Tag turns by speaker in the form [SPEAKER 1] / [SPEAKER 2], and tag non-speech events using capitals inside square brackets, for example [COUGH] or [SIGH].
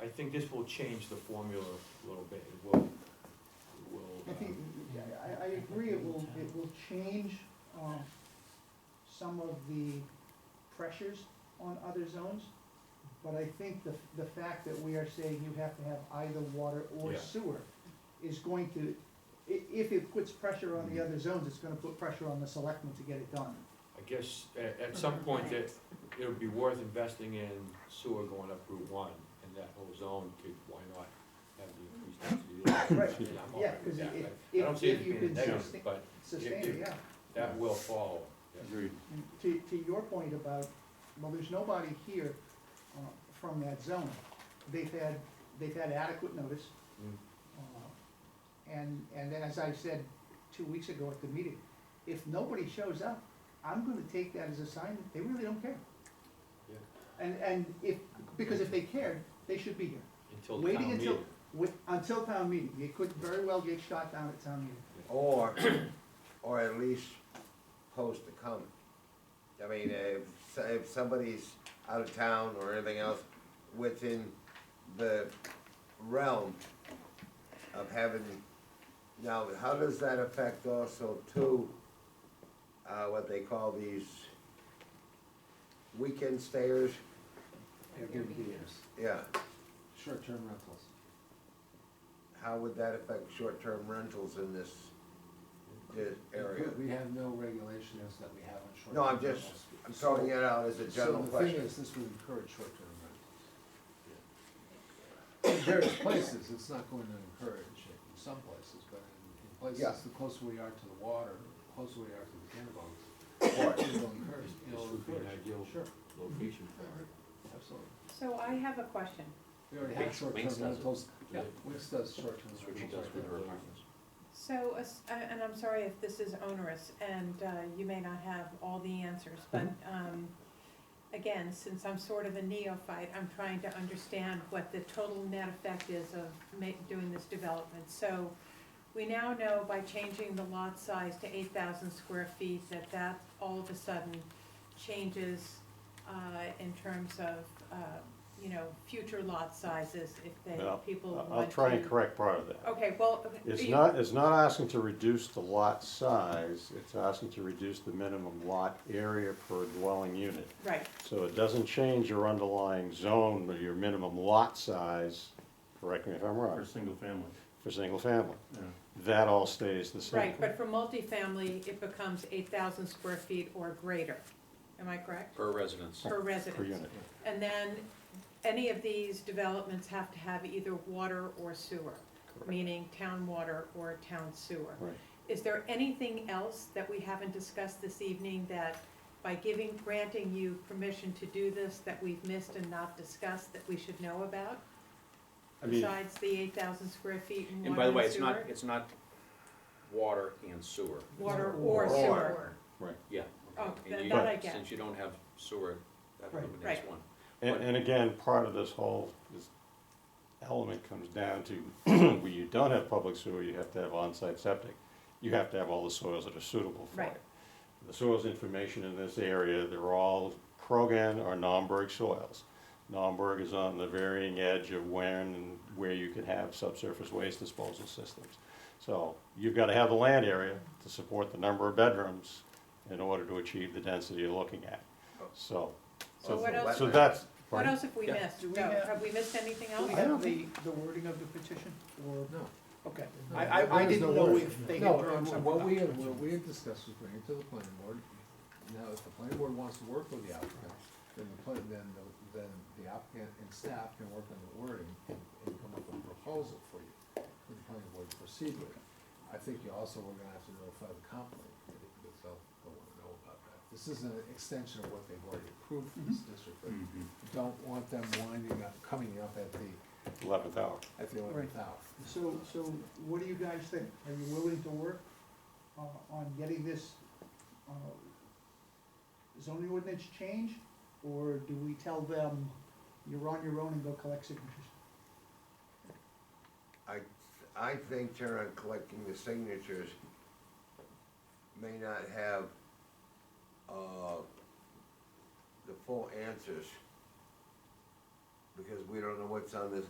[SPEAKER 1] I think this will change the formula a little bit, it will, it will,
[SPEAKER 2] I think,
[SPEAKER 1] uh,
[SPEAKER 2] I, I agree, it will, it will change, um, some of the pressures on other zones, but I think the, the fact that we are saying you have to have either water or
[SPEAKER 1] Yeah.
[SPEAKER 2] sewer is going to, i- if it puts pressure on
[SPEAKER 1] Mm-hmm.
[SPEAKER 2] the other zones, it's gonna put pressure on the selectmen to get it done.
[SPEAKER 1] I guess, at, at some point, that it would be worth investing in sewer going up Route one, and that whole zone could, why not have the increased density? there? And I'm all
[SPEAKER 2] Yeah,
[SPEAKER 1] right with
[SPEAKER 2] cause
[SPEAKER 1] that.
[SPEAKER 2] if,
[SPEAKER 1] I- I don't
[SPEAKER 2] if,
[SPEAKER 1] see
[SPEAKER 2] if
[SPEAKER 1] it
[SPEAKER 2] you
[SPEAKER 1] being a
[SPEAKER 2] can
[SPEAKER 1] negative,
[SPEAKER 2] sustain,
[SPEAKER 1] but
[SPEAKER 2] sustain
[SPEAKER 1] if-
[SPEAKER 2] it, yeah.
[SPEAKER 1] that will follow. yeah.
[SPEAKER 3] Agreed.
[SPEAKER 2] To, to your point about, well, there's nobody here, uh, from that zone. They've had, they've had adequate notice.
[SPEAKER 1] Mm.
[SPEAKER 2] Uh, And, and then as I said two weeks ago at the meeting, if nobody shows up, I'm gonna take that as a sign that they really don't care.
[SPEAKER 1] Yeah.
[SPEAKER 2] And, and if, because if they cared, they should be here.
[SPEAKER 1] Until
[SPEAKER 2] Waiting
[SPEAKER 1] town
[SPEAKER 2] until-
[SPEAKER 1] meeting.
[SPEAKER 2] With, until town meeting, it could very well get shot down at town meeting.
[SPEAKER 4] Or, [CLEARS THROAT] or at least post a comment. I mean, if, so- if somebody's out of town or anything else, within the realm of having, now, how does that affect also too, uh, what they call these weekend stayers? Yeah,
[SPEAKER 3] Short-term rentals.
[SPEAKER 4] how would that affect short-term rentals in this, this area?
[SPEAKER 3] Good, We have no regulations that we have on short-term
[SPEAKER 4] No, I'm
[SPEAKER 3] rentals.
[SPEAKER 4] just, I'm throwing it out as a general
[SPEAKER 3] So the thing
[SPEAKER 4] question.
[SPEAKER 3] is, this would encourage short-term rentals. In various places, it's not going to encourage it in some places, but in, in
[SPEAKER 4] Yeah.
[SPEAKER 3] places, the closer we are to the water, the closer we are to the cannabis,
[SPEAKER 4] Or-
[SPEAKER 3] it will encourage, it
[SPEAKER 1] This
[SPEAKER 3] will
[SPEAKER 1] would be an
[SPEAKER 3] encourage.
[SPEAKER 1] ideal
[SPEAKER 3] Sure,
[SPEAKER 1] location for it.
[SPEAKER 3] absolutely.
[SPEAKER 5] So I have a question.
[SPEAKER 3] We already have
[SPEAKER 6] Winx- Winx
[SPEAKER 3] short-term
[SPEAKER 6] does it.
[SPEAKER 3] rentals.
[SPEAKER 1] Yeah.
[SPEAKER 3] Wix does short-term
[SPEAKER 6] That's what she
[SPEAKER 3] rentals.
[SPEAKER 6] does
[SPEAKER 3] right
[SPEAKER 6] with
[SPEAKER 3] now.
[SPEAKER 6] her apartments.
[SPEAKER 5] So, as- uh, and I'm sorry if this is onerous, and uh, you may not have all the answers, but
[SPEAKER 7] Mm-hmm.
[SPEAKER 5] um, again, since I'm sort of a neophyte, I'm trying to understand what the total net effect is of ma- doing this development. So we now know by changing the lot size to 8,000 square feet, that that all of a sudden changes uh, in terms of, uh, you know, future lot sizes if they,
[SPEAKER 7] Yeah.
[SPEAKER 5] people
[SPEAKER 7] I-
[SPEAKER 5] want to.
[SPEAKER 7] I'll try and correct part of that.
[SPEAKER 5] Okay, well.
[SPEAKER 7] It's
[SPEAKER 5] Oh, you-
[SPEAKER 7] not, it's not asking to reduce the lot size, it's asking to reduce the minimum lot area per dwelling unit.
[SPEAKER 5] Right,
[SPEAKER 7] So it doesn't change your underlying zone, but your minimum lot size, correct me if I'm
[SPEAKER 6] For
[SPEAKER 7] wrong,
[SPEAKER 6] single family,
[SPEAKER 7] for single family.
[SPEAKER 6] yeah.
[SPEAKER 7] That all stays the same.
[SPEAKER 5] right, but for multifamily, it becomes eight thousand square feet or greater, am I correct?
[SPEAKER 6] Per residence.
[SPEAKER 5] Per
[SPEAKER 7] Per
[SPEAKER 5] residence.
[SPEAKER 7] unit.
[SPEAKER 5] And then, any of these developments have to have either water or sewer, meaning town water or town sewer.
[SPEAKER 7] Right.
[SPEAKER 5] Is there anything else that we haven't discussed this evening that by giving, granting you permission to do this, that we've missed and not discussed, that we should know about?
[SPEAKER 7] I mean-
[SPEAKER 5] Besides the eight thousand square feet and water and sewer?
[SPEAKER 6] And by the way, it's not, it's not water and sewer,
[SPEAKER 5] Water or sewer.
[SPEAKER 6] yeah.
[SPEAKER 5] Oh,
[SPEAKER 6] And
[SPEAKER 5] that
[SPEAKER 6] you-
[SPEAKER 5] that I get.
[SPEAKER 6] Since you don't have sewer, that
[SPEAKER 2] Right.
[SPEAKER 6] eliminates
[SPEAKER 5] Right.
[SPEAKER 6] one.
[SPEAKER 7] And, and again, part of this whole, this element comes down to, [CLEARS THROAT] where you don't have public sewer, you have to have on-site septic. You have to have all the soils that are suitable for
[SPEAKER 5] Right.
[SPEAKER 7] it. The soils information in this area, they're all Krogan or Naumburg soils. Naumburg is on the varying edge of when and where you could have subsurface waste disposal systems. So you've gotta have the land area to support the number of bedrooms in order to achieve the density you're looking at. So,
[SPEAKER 5] So what
[SPEAKER 4] Also
[SPEAKER 5] else,
[SPEAKER 7] so that's.
[SPEAKER 5] what else have we
[SPEAKER 6] Yeah.
[SPEAKER 5] missed?
[SPEAKER 2] Do we
[SPEAKER 5] No,
[SPEAKER 2] have-
[SPEAKER 5] have we missed anything
[SPEAKER 2] Do
[SPEAKER 5] else?
[SPEAKER 2] we
[SPEAKER 7] I don't
[SPEAKER 2] have the, the wording of the petition, or,
[SPEAKER 3] No.
[SPEAKER 2] okay,
[SPEAKER 3] No,
[SPEAKER 2] I, I, I
[SPEAKER 3] there is
[SPEAKER 2] didn't
[SPEAKER 3] no
[SPEAKER 2] know
[SPEAKER 3] word.
[SPEAKER 2] if they had
[SPEAKER 3] No,
[SPEAKER 2] drawn
[SPEAKER 3] and
[SPEAKER 2] something
[SPEAKER 3] what
[SPEAKER 2] up.
[SPEAKER 3] we had, what we had discussed was bring it to the planning board. Now, if the planning board wants to work with the applicant, then the plan, then, the- then the applicant and staff can work on the wording and and come up with a proposal for you, for the planning board to proceed with. I think you also were gonna have to notify the complaint committee, because they'll, they'll wanna know about that. This is an extension of what they've already approved for this district, but
[SPEAKER 5] Mm-hmm.
[SPEAKER 3] don't want them winding up, coming up at the,
[SPEAKER 7] Eleventh hour.
[SPEAKER 3] at the eleventh hour.
[SPEAKER 2] So, so what do you guys think? Are you willing to work uh, on getting this uh, zoning ordinance changed? Or do we tell them, you're on your own and go collect signatures?
[SPEAKER 4] I, I think Sharon collecting the signatures may not have, uh, the full answers. Because we don't know what's on this